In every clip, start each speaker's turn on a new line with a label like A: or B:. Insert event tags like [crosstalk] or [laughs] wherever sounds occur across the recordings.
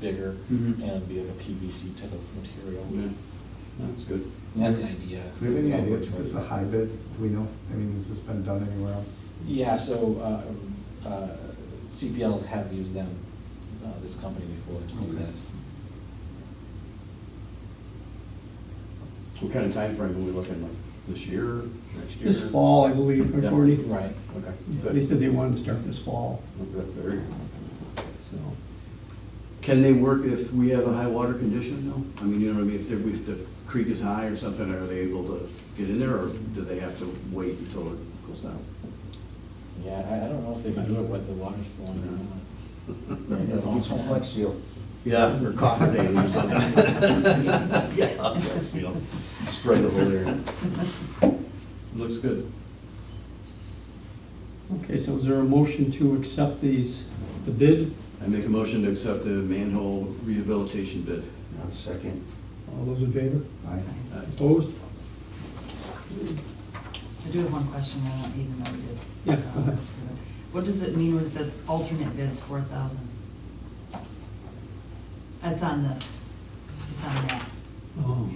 A: bigger
B: Mhm.
A: and be like a PVC type of material.
B: Yeah. That's good.
A: And that's the idea.
C: Do we have any
A: of
C: idea,
A: which
C: is this
A: way-
C: a high bid, do we know, I mean, has this been done anywhere else?
A: Yeah, so uh, um, uh, CPL have used them, uh, this company before to do
B: Okay.
A: this.
B: What kind of timeframe are we looking, like this year, next year?
D: This fall, I believe,
B: Yeah.
D: according,
A: Right.
B: Okay,
D: they
B: good.
D: said they wanted to start this fall.
B: Okay, very good. So, Can they work if we have a high water condition though? I mean, you know what I mean, if the, if the creek is high or something, are they able to get in there or do they have to wait until it goes down?
A: Yeah, I, I don't know if they can do it with the water flowing or
E: [laughs]
A: not.
E: Maybe I'll get some flex seal.
B: Yeah, or coffer day or something. Yeah, flex seal, spray the whole area. Looks good.
D: Okay, so is there a motion to accept these, the bid?
B: I make a motion to accept the manhole rehabilitation bid.
E: I'll second.
D: All those in favor?
C: I-
B: Uh,
D: Opposed?
F: I do have one question, I don't even know you did.
D: Yeah, go ahead.
F: Uh, What does it mean when it says alternate bids four thousand? That's on this, it's on that.
D: Oh,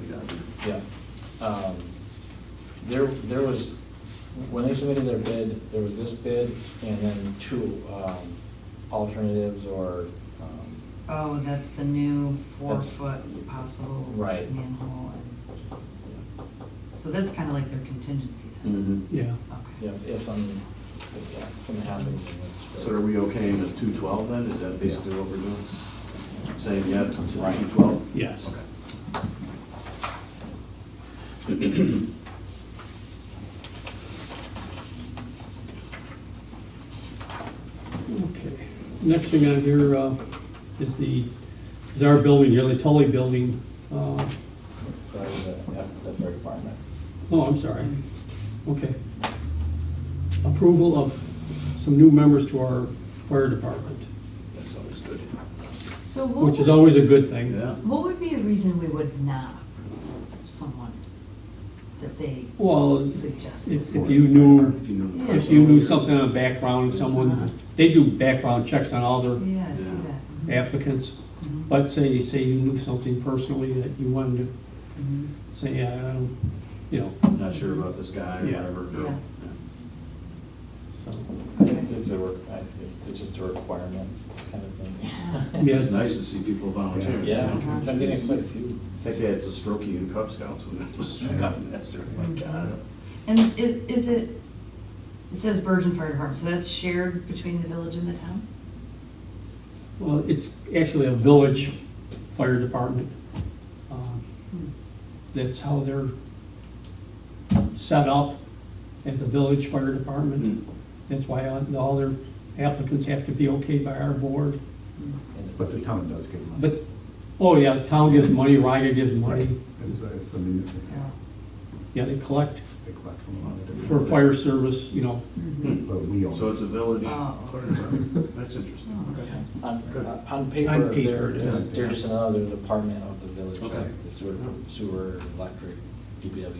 B: we got it.
A: Yeah. Um, There, there was, when they submitted their bid, there was this bid and then two um, alternatives or, um,
F: Oh, that's the new
A: That's-
F: four-foot possible
A: Right.
F: manhole. and- So that's kind of like their contingency then?
B: Mhm.
D: Mm-hmm. yeah.
A: you
F: Okay.
A: know, if something, if, yeah, something happens. then it's-
B: So are we okay in the two twelve then? Is that basically what we're doing? Saying yes to two twelve?
D: Yes. Okay. Next thing on here uh, is the, is our building here, the Tully Building. uh,
A: That was, uh, yeah, that's very department.
D: Oh, I'm sorry. Okay. Approval of some new members to our fire department,
B: That's always good.
F: So what
D: which is
F: would,
D: always a good thing.
B: Yeah.
F: what would be a reason we would not approve someone that they
D: Well,
F: suggested?
D: if if you knew,
B: If you know the
F: Yeah.
D: if
B: person.
D: you knew something on background, someone, they do background checks on all their
F: Yeah, I see
B: Yeah.
F: that. Mhm.
D: applicants,
F: Mhm.
D: but say, say you knew something personally that you wanted to
F: Mhm.
D: say, yeah, I don't, you know,
B: Not sure about this guy or
D: Yeah.
B: whatever.
F: Yeah.
D: so.
A: I think It's a, re- I think it's just a requirement kind of thing.
D: Yeah,
B: It's nice to see people volunteer. you
A: Yeah,
F: Uh-huh.
B: know?
A: I'm getting quite a few.
B: I think they had a strokey in Cub Scouts when it was gotten master, my God.
F: And is, is it, it says Virgin Fire Department, so that's shared between the village and the town?
D: Well, it's actually a village fire department. Um,
F: Hmm.
D: That's how they're set up as a village fire department. That's why all- all their applicants have to be okay by our board.
A: And-
C: But the town does give money.
D: But, oh yeah, the town gives money, Ryder gives money.
C: It's a, it's a, muni- yeah,
D: Yeah, they collect
C: they collect from a lot of different.
D: for fire service, you know,
F: Mm-hmm.
C: But we own.
B: Hmm. So it's a village.
F: Oh.
B: That's interesting.
F: Oh, okay.
A: On,
B: Good.
A: uh, on paper,
D: On paper,
A: they're,
D: it
A: just-
B: is.
A: they're just another department of the village,
B: Okay.
A: like the sewer, sewer, electric, DPW.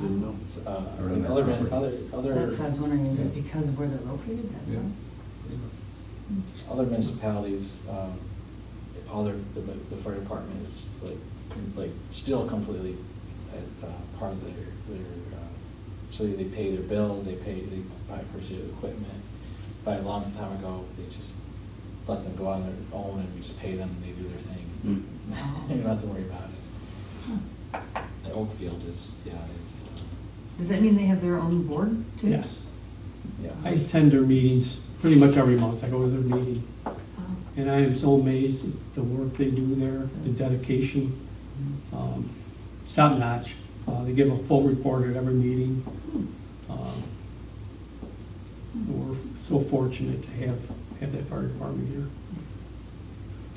B: Didn't know.
A: It's, uh,
C: Or other
A: Other, than-
C: property.
A: other,
F: That's what
A: other,
F: I was wondering, is it because of where they're located, that's
C: Yeah.
F: why?
A: other municipalities, um, all their, the, the fire department is like, like still completely at, uh, part of their, their, uh, so they pay their bills, they pay, they buy purchase of equipment. By a long time ago, they just let them go on their own and we just pay them and they do their thing.
B: Mm.
A: [laughs] You don't have to worry about it. The Oakfield is, yeah, uh, is,
F: Does that mean they have their own board too?
D: yes.
A: yeah.
D: I attend their meetings pretty much every month. I go to their meeting.
F: Oh.
D: And I am so amazed at the work they do there, the dedication.
F: Mm-hmm.
D: Um, It's top notch. Uh, They give a full report at every meeting. Um, We're so fortunate to have, have that fire department here.
F: Nice.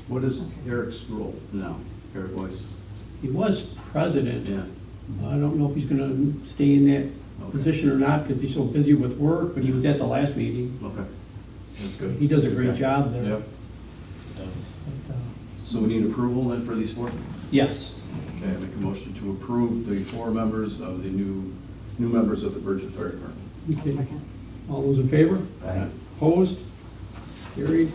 B: What is Eric's role now? Eric Weiss?
D: He was
B: Yeah.
D: president. I don't know if he's gonna stay in that
B: Okay.
D: position or not because he's so busy with work, but he was at the last meeting.
B: Okay. That's good.
D: He does a great job there.
B: Yep.
A: Does.
D: But, uh,
B: So we need approval then for these four?
D: Yes,
B: Okay, I make a motion to approve the four members of the new, new members of the Virgin Fire Department.
F: I'll
D: okay.
F: second.
D: All those in favor?
C: Aye.
D: Opposed? Carried.